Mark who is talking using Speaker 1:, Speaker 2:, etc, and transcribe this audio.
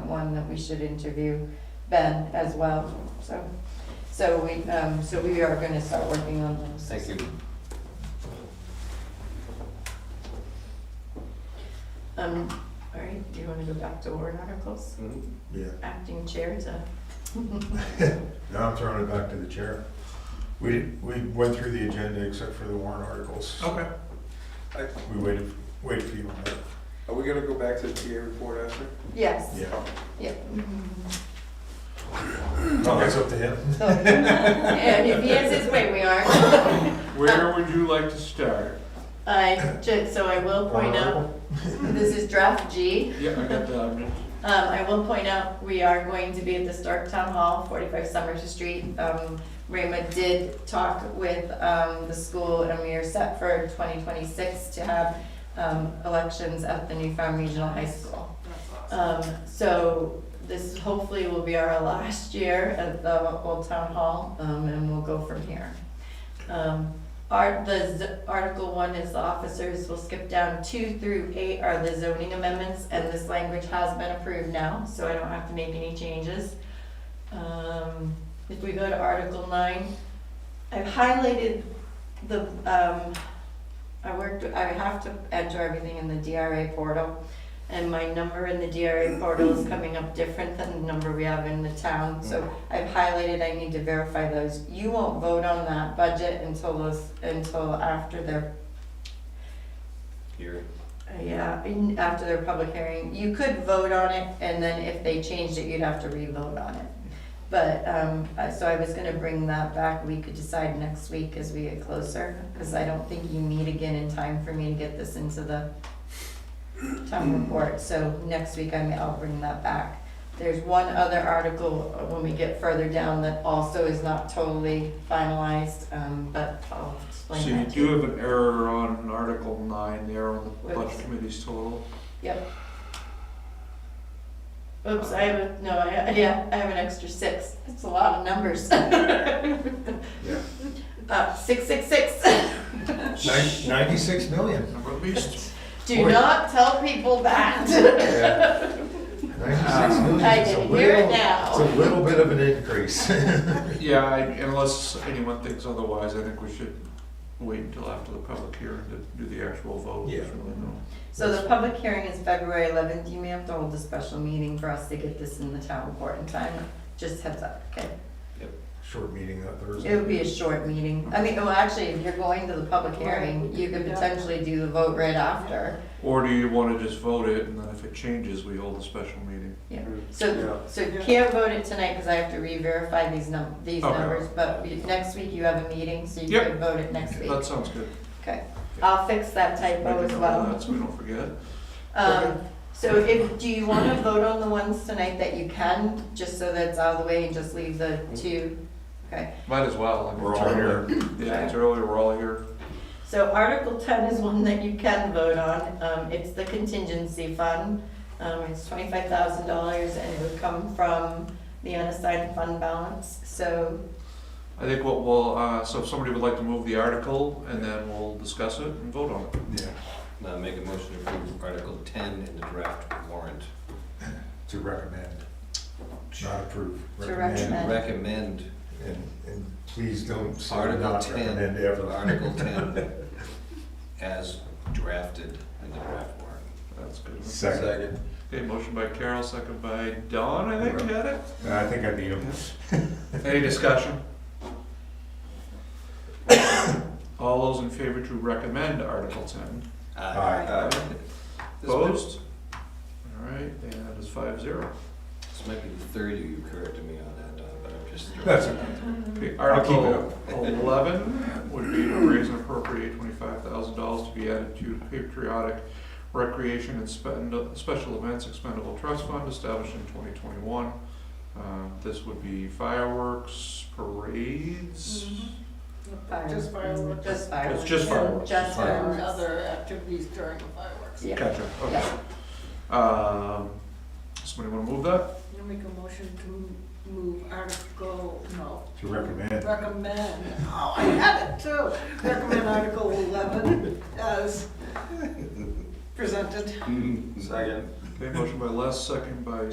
Speaker 1: one that we should interview Ben as well, so. So we, um, so we are gonna start working on those.
Speaker 2: Thank you.
Speaker 1: Um, all right, do you wanna go back to warrant articles?
Speaker 3: Yeah,
Speaker 1: Acting chair to.
Speaker 3: now I'm throwing it back to the chair. We, we went through the agenda except for the warrant articles.
Speaker 4: Okay.
Speaker 3: We waited, waited for you on that.
Speaker 4: Are we gonna go back to the TA report after?
Speaker 1: Yes,
Speaker 3: Yeah.
Speaker 1: yeah.
Speaker 3: No, that's up to him.
Speaker 1: So- And if he has his way, we are.
Speaker 5: Where would you like to start?
Speaker 1: I, ju- so I will point out, this is draft G.
Speaker 5: Yeah, I got that.
Speaker 1: Um, I will point out, we are going to be at the Stark Town Hall, forty-five Summers Street. Um, Rayma did talk with, um, the school and we are set for twenty twenty-six to have, um, elections at the New Farm Regional High School. Um, so this hopefully will be our last year at the Old Town Hall, um, and we'll go from here. Um, Art, the z- Article one is the officers, we'll skip down two through eight are the zoning amendments, and this language has been approved now, so I don't have to make any changes. Um, if we go to Article nine, I've highlighted the, um, I worked, I have to enter everything in the DRA portal, and my number in the DRA portal is coming up different than the number we have in the town, so I've highlighted, I need to verify those. You won't vote on that budget until those, until after their,
Speaker 2: Here.
Speaker 1: uh, yeah, in- after their public hearing. You could vote on it, and then if they changed it, you'd have to re-vote on it. But, um, I- so I was gonna bring that back, we could decide next week as we get closer, because I don't think you meet again in time for me to get this into the town report, so next week I may, I'll bring that back. There's one other article uh, when we get further down that also is not totally finalized, um, but I'll
Speaker 5: So
Speaker 1: explain
Speaker 5: you
Speaker 1: that to
Speaker 5: do have an error on Article nine there on the
Speaker 1: Whoops.
Speaker 5: budget committee's total.
Speaker 1: Oops, I have, a- no, I, yeah, I have an extra six. That's a lot of numbers. Uh, six, six, six.
Speaker 3: Nin- Ninety-six million.
Speaker 5: Number at least.
Speaker 1: Do
Speaker 3: Boy.
Speaker 1: not tell people that.
Speaker 3: Yeah. Ninety-six million.
Speaker 1: I
Speaker 3: It's a
Speaker 1: can hear it
Speaker 3: little- It's a
Speaker 1: now.
Speaker 3: little bit of an increase.
Speaker 5: Yeah, I- unless anyone thinks otherwise, I think we should wait until after the public hearing to do the actual vote. There's
Speaker 3: Yeah.
Speaker 5: really no-
Speaker 1: So the public hearing is February eleventh. You may have to hold a special meeting for us to get this in the town report in time. Just heads up, okay?
Speaker 3: Short meeting that
Speaker 1: It would
Speaker 3: Thursday.
Speaker 1: be a short meeting. I mean, well, actually, if you're going to the public hearing, you could potentially do the vote right after.
Speaker 5: Or do you wanna just vote it and then if it changes, we hold a special meeting?
Speaker 1: So,
Speaker 4: Yeah.
Speaker 1: so you can't vote it tonight because I have to re-verify these num, these
Speaker 5: Okay.
Speaker 1: numbers, but you- next week you have a meeting, so you
Speaker 5: Yep.
Speaker 1: can vote it next week.
Speaker 5: That sounds good.
Speaker 1: Okay, I'll fix that typo
Speaker 5: Make
Speaker 1: as
Speaker 5: a note of
Speaker 1: well.
Speaker 5: that So we don't forget.
Speaker 1: Um, so if, do you wanna vote on the ones tonight that you can, just so that's out of the way and just leave the two? Okay,
Speaker 5: Might as well. I mean,
Speaker 3: We're
Speaker 5: it's
Speaker 3: all
Speaker 5: earlier.
Speaker 3: here.
Speaker 5: Yeah, it's earlier, we're all here.
Speaker 1: so Article ten is one that you can vote on, um, it's the contingency fund. Um, it's twenty-five thousand dollars and it would come from the unassigned fund balance, so
Speaker 5: I think what we'll, uh, so if somebody would like to move the article, and then we'll discuss it and vote on it.
Speaker 3: Yeah,
Speaker 2: Now Uh, make a motion to approve Article ten in the draft warrant.
Speaker 3: to recommend, not approve.
Speaker 1: To
Speaker 2: To
Speaker 1: Recommend.
Speaker 2: recommend
Speaker 3: And, and please don't say
Speaker 2: Article
Speaker 3: not recommend
Speaker 2: ten,
Speaker 3: ever.
Speaker 2: Article ten as drafted in the draft warrant.
Speaker 5: That's good.
Speaker 3: Second.
Speaker 5: Okay, motion by Carol, second by Don, I think, had it.
Speaker 3: I think I need him.
Speaker 5: Any discussion? All those in favor to recommend Article ten?
Speaker 3: Aye.
Speaker 2: This might-
Speaker 5: Opposed? All right, and that is five zero.
Speaker 2: This might be the third you you corrected me on that, Don, but I'm just. throwing
Speaker 3: That's
Speaker 2: it out there.
Speaker 5: Okay,
Speaker 3: I'll keep it
Speaker 5: Article eleven would be to raise and appropriate twenty-five thousand dollars to be added to patriotic recreation and spend, special events expendable trust fund established in twenty twenty-one. Uh, This would be fireworks, parades.
Speaker 1: Just fireworks. Just fireworks.
Speaker 5: It's just fireworks.
Speaker 1: Just
Speaker 6: and
Speaker 1: fireworks.
Speaker 6: other activities during the fireworks.
Speaker 1: Yeah.
Speaker 5: Gotcha, okay. Um, Somebody wanna move that?
Speaker 6: I'm gonna make a motion to move Article, no,
Speaker 3: To recommend.
Speaker 6: recommend, oh, I had it too, recommend Article eleven as presented.
Speaker 4: Second.
Speaker 5: Okay, motion by Les, second by